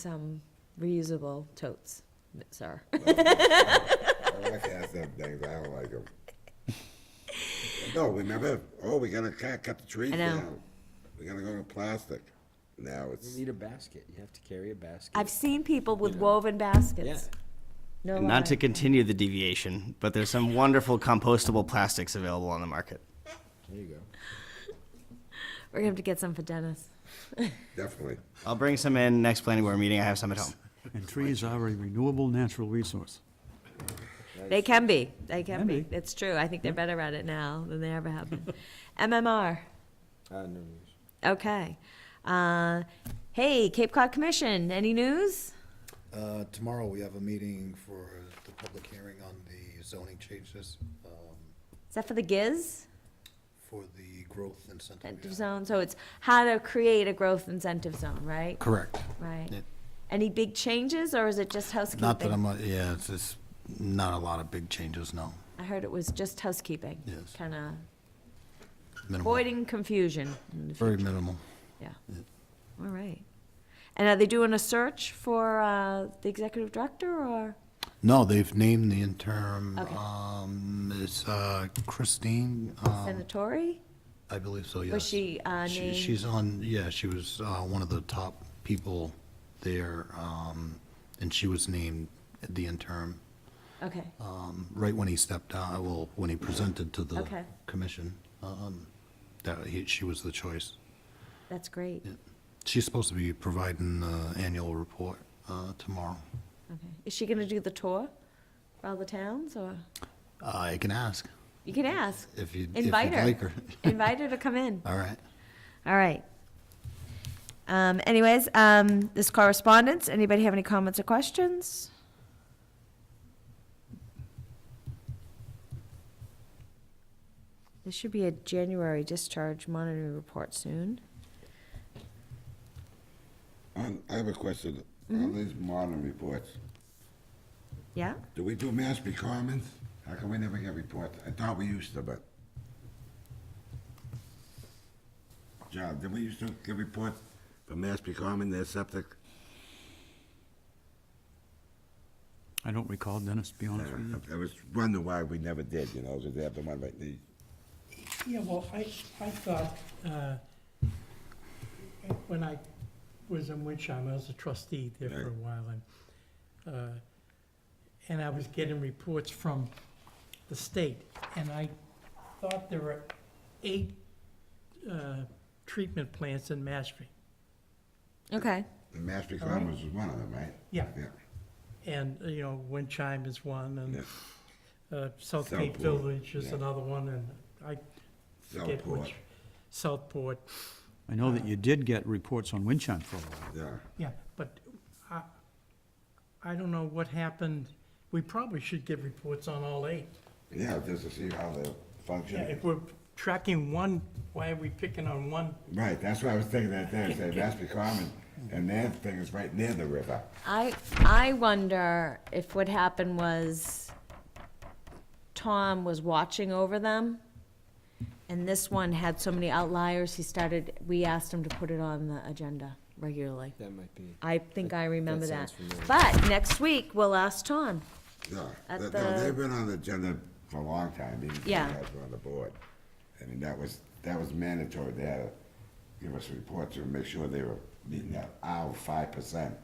some reusable totes, sir. My wife has them things. I don't like them. No, remember? Oh, we gotta cut, cut the trees I know. down. We gotta go to plastic. Now it's You need a basket. You have to carry a basket. I've seen people with woven baskets. No lie. Not to continue the deviation, but there's some wonderful compostable plastics available on the market. There you go. We're gonna have to get some for Dennis. definitely. I'll bring some in next planning board meeting. I have some at home. And trees are a renewable natural resource. They can be, they can Can be. be. It's true. I think they're better at it now than they ever have been. MMR, Uh, no news. okay. Uh, hey, Cape Cod Commission, any news? Uh, Tomorrow, we have a meeting for the public hearing on the zoning changes um, Is that for the GIZ for the growth incentive. incentive zone? So it's how to create a growth incentive zone, right? Correct. Right. Yeah. Any big changes or is it just housekeeping? Not that I'm, a- yeah, it's, it's not a lot of big changes, no. I heard it was just housekeeping. Yes. Kinda Minimal. avoiding confusion. in the Very minimal. Yeah. All right. And are they doing a search for uh, the executive director or? No, they've named the interim, Okay. um, it's uh, Christine, um, Senatori? I believe so, yes. she, uh, She- named- She's on, yeah, she was uh, one of the top people there, um, and she was named the interim. Okay. um, right when he stepped down, well, when he presented to the Okay. commission, um, that he, she was the choice. That's great. She's supposed to be providing the annual report uh, tomorrow. Okay. Is she going to do the tour for all the towns or? Uh, I can ask You can ask. if you, if you'd Invite her. like her. Invite her to come in. All right. All right. Um, anyways, um, this correspondence, anybody have any comments or questions? This should be a January discharge monitoring report soon. On, I have a question. On Mm-hmm. these modern reports, Yeah? do we do Mashpee Commons? How come we never get reports? I thought we used to, but. John, did we used to get reports from Mashpee Common, their septic? I don't recall, Dennis, to be honest with you. Mm-hmm. I was wondering why we never did, you know, did they have the one right the Yeah, well, I, I thought, uh, when I was in Winchime, I was a trustee there for a while, and, uh, and I was getting reports from the state, and I thought there were eight uh, treatment plants in Mashpee. Okay. Mashpee Uh-huh. Commons was one of them, right? Yeah, Yeah. and, uh, you know, Winchime is one, Yeah. and uh, South Southport, Cape Village is yeah. another one, and I forget Southport, which. Southport, I know that you did get reports on wind chime for a while. yeah. Yeah, but I, I don't know what happened. We probably should get reports on all eight. Yeah, just to see how they function. If we're tracking one, why are we picking on one? Right, that's what I was thinking that day, say Mashpee Common, and their thing is right near the river. I, I wonder if what happened was Tom was watching over them, and this one had so many outliers, he started, we asked him to put it on the agenda regularly. That might be. I think I remember that. sounds familiar. But next week, we'll ask Tom. Yeah, At no, the- they've been on the agenda for a long time, even when you Yeah. guys were on the board. I mean, that was, that was mandatory, they had to give us reports and make sure they were meeting that our five percent.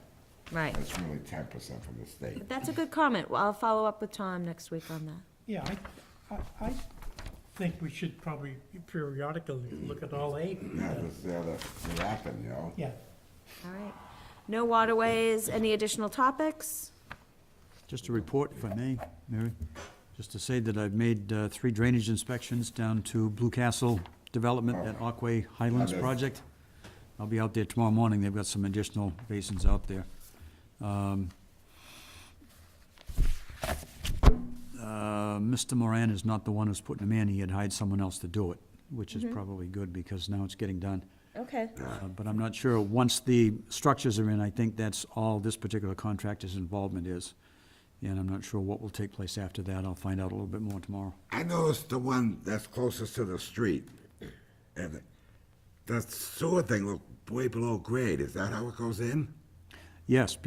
Right. That's really ten percent from the state. But that's a good comment. Well, I'll follow up with Tom next week on that. Yeah, I, I, I think we should probably periodically look at all eight. Yeah, that's the other, it happened, you know? Yeah, All right. No waterways, any additional topics? Just a report, if I may, Mary, just to say that I've made uh, three drainage inspections down to Blue Castle Development at Aquay Highlands Okay. Project. I'll be out there tomorrow morning. They've got some additional basins out there. Um, uh, Mr. Moran is not the one who's putting them in. He had hired someone else to do it, which is probably good because now it's getting done. Okay. Uh, But I'm not sure, once the structures are in, I think that's all this particular contractor's involvement is. And I'm not sure what will take place after that. I'll find out a little bit more tomorrow. I noticed the one that's closest to the street, and the sewer thing looked way below grade, is that how it goes in? Yes,